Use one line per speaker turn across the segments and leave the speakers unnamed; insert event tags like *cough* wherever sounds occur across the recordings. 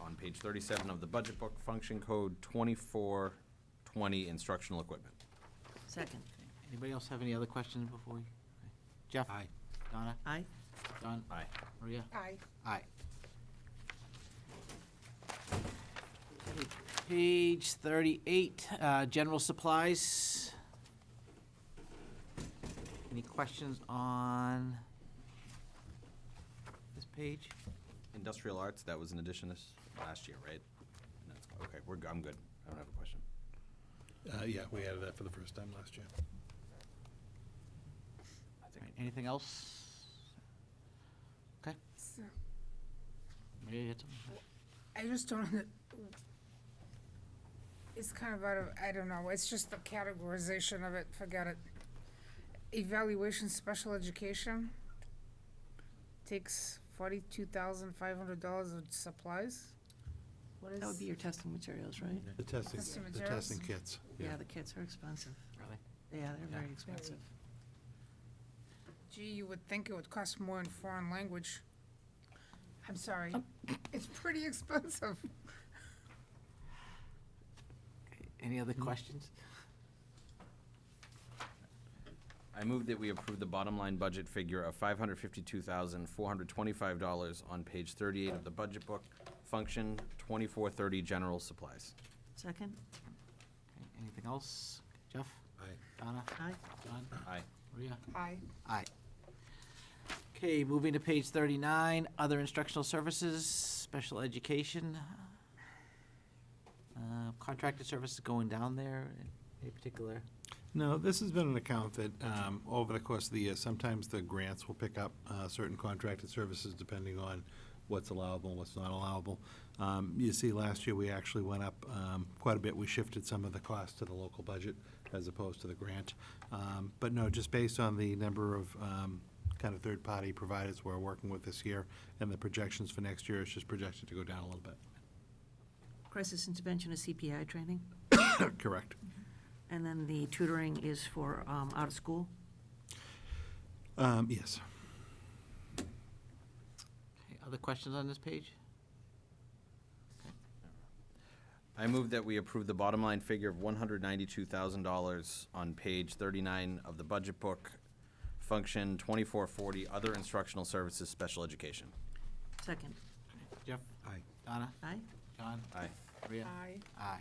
on page thirty-seven of the budget book, function code twenty-four twenty, instructional equipment.
Second.
Anybody else have any other questions before we? okay. Jeff? Aye. Donna?
Aye.
Don?
Aye.
Maria?
Aye.
Aye. Page thirty-eight, uh, general supplies. Any questions on this page?
Industrial arts, that was an addition this, last year, right? And that's- Okay, we're, g- I'm good. I don't have a question.
Uh, yeah, we added that for the first time last year.
I
All
think
right, Anything else? Okay,
So,
Maria, you had something?
I just don't, under- it's kind of out of, I don't know, it's just the categorization of it, forget it. Evaluation special education takes forty-two thousand five hundred dollars of supplies? What is?
That would be your testing materials, right?
The testing,
Testing
the
materials?
testing kits,
Yeah,
yeah.
the kits are expensive.
Really?
Yeah, they're very
Yeah.
expensive.
Gee, you would think it would cost more in foreign language. I'm sorry, it's pretty *laughs* expensive.
Any other questions?
I move that we approve the bottom line budget figure of five hundred fifty-two thousand, four hundred twenty-five dollars on page thirty-eight of the budget book, function twenty-four thirty, general supplies.
Second?
Okay, Anything else? Jeff?
Aye.
Donna?
Aye.
Don?
Aye.
Maria?
Aye.
Aye. Okay, moving to page thirty-nine, other instructional services, special education. Uh, Contracted services going down there, any particular?
No, this has been an account that, um, over the course of the year, sometimes the grants will pick up, uh, certain contracted services depending on what's allowable, and what's not allowable. Um, you see, last year, we actually went up, um, quite a bit. We shifted some of the cost to the local budget as opposed to the grant. Um, but no, just based on the number of, um, kind of third-party providers we're working with this year and the projections for next year, it's just projected to go down a little bit. *coughs*
Crisis intervention is CPI training,
Correct.
and then the tutoring is for um, out of school.
Um, yes.
Okay, Other questions on this page?
I move that we approve the bottom line figure of one hundred ninety-two thousand dollars on page thirty-nine of the budget book, function twenty-four forty, other instructional services, special education.
Second.
Jeff?
Aye.
Donna?
Aye?
John?
Aye.
Maria?
Aye.
Aye.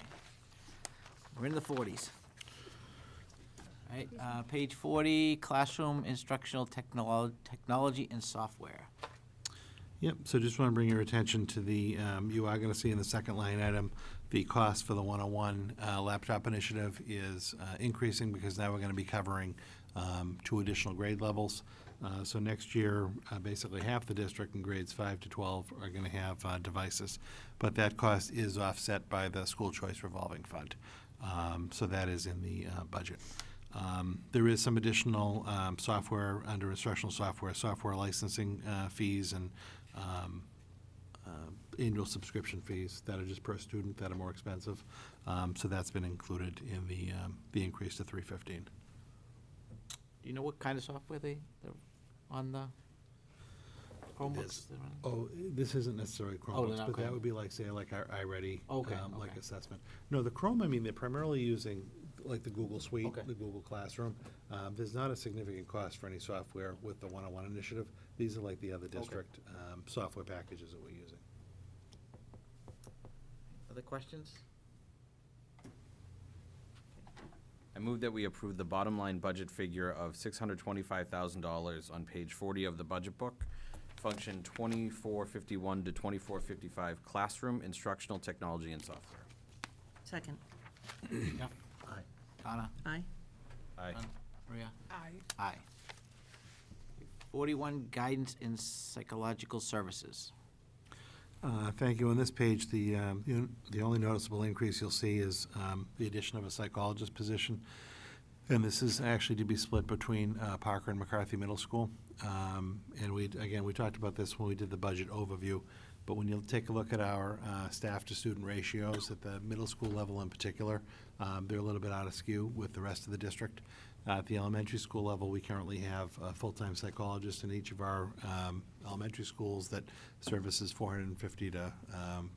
We're in the forties. All right, uh, page forty, classroom instructional technolo- technology and software.
Yep, so just want to bring your attention to the, um, you are going to see in the second line item, the cost for the 101 uh, laptop initiative is uh, increasing because now we're going to be covering um, two additional grade levels. Uh, So next year, uh, basically half the district in grades 5 to 12 are going to have uh, devices. But that cost is offset by the school choice revolving fund. Um, So that is in the uh, budget. Um, There is some additional um, software, under instructional software, software licensing uh, fees and um, uh, annual subscription fees that are just per student that are more expensive. Um, So that's been included in the, um, the increase to 315.
Do you know what kind of software they, they're on the Chromebooks? they're on?
Oh, this isn't necessarily
Oh, they're
Chromebooks,
not
but that
Chrome.
would be like, say, like our iReady,
Okay,
um, like
okay.
assessment. No, the Chrome, I mean, they're primarily using like the Google Suite,
Okay.
the Google Classroom. Um, There's not a significant cost for any software with the one-on-one initiative. These are like the other district um, software packages that we're using.
Other questions?
I move that we approve the bottom line budget figure of six hundred twenty-five thousand dollars on page forty of the budget book, function twenty-four fifty-one to twenty-four fifty-five, classroom instructional technology and software.
Second.
Jeff?
Aye.
Donna?
Aye?
Aye.
Don? Maria?
Aye.
Aye. Forty-one, guidance in psychological services.
Uh, Thank you. On this page, the, um, you know, the only noticeable increase you'll see is um, the addition of a psychologist position. And this is actually to be split between uh, Parker and McCarthy Middle School. Um, And we, again, we talked about this when we did the budget overview, but when you take a look at our uh, staff-to-student ratios at the middle school level in particular, um, they're a little bit out of skew with the rest of the district. Uh, At the elementary school level, we currently have a full-time psychologist in each of our um, elementary schools that services 450 to um,